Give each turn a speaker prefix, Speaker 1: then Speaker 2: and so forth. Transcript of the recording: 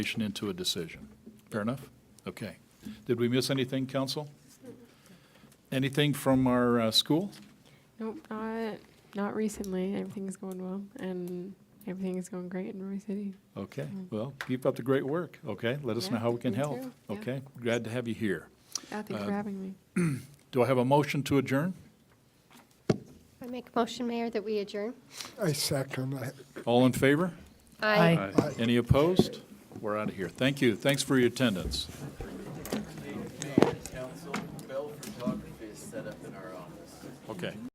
Speaker 1: information into a decision. Fair enough? Okay. Did we miss anything, council? Anything from our uh, school?
Speaker 2: Nope, not not recently. Everything's going well, and everything is going great in Roy City.
Speaker 1: Okay, well, keep up the great work, okay? Let us know
Speaker 2: Yeah,
Speaker 1: how we can
Speaker 2: you
Speaker 1: help,
Speaker 2: too. Yeah.
Speaker 1: okay? Glad to have you here.
Speaker 2: Ah, thanks
Speaker 1: Uh,
Speaker 2: for having me.
Speaker 1: Do I have a motion to adjourn?
Speaker 3: I make a motion, Mayor, that we adjourn.
Speaker 4: I second that.
Speaker 1: All in favor?
Speaker 3: Aye.
Speaker 1: Any opposed? We're out of here. Thank you. Thanks for your attendance.
Speaker 5: Council, Bell Photography is set up in our office.
Speaker 1: Okay.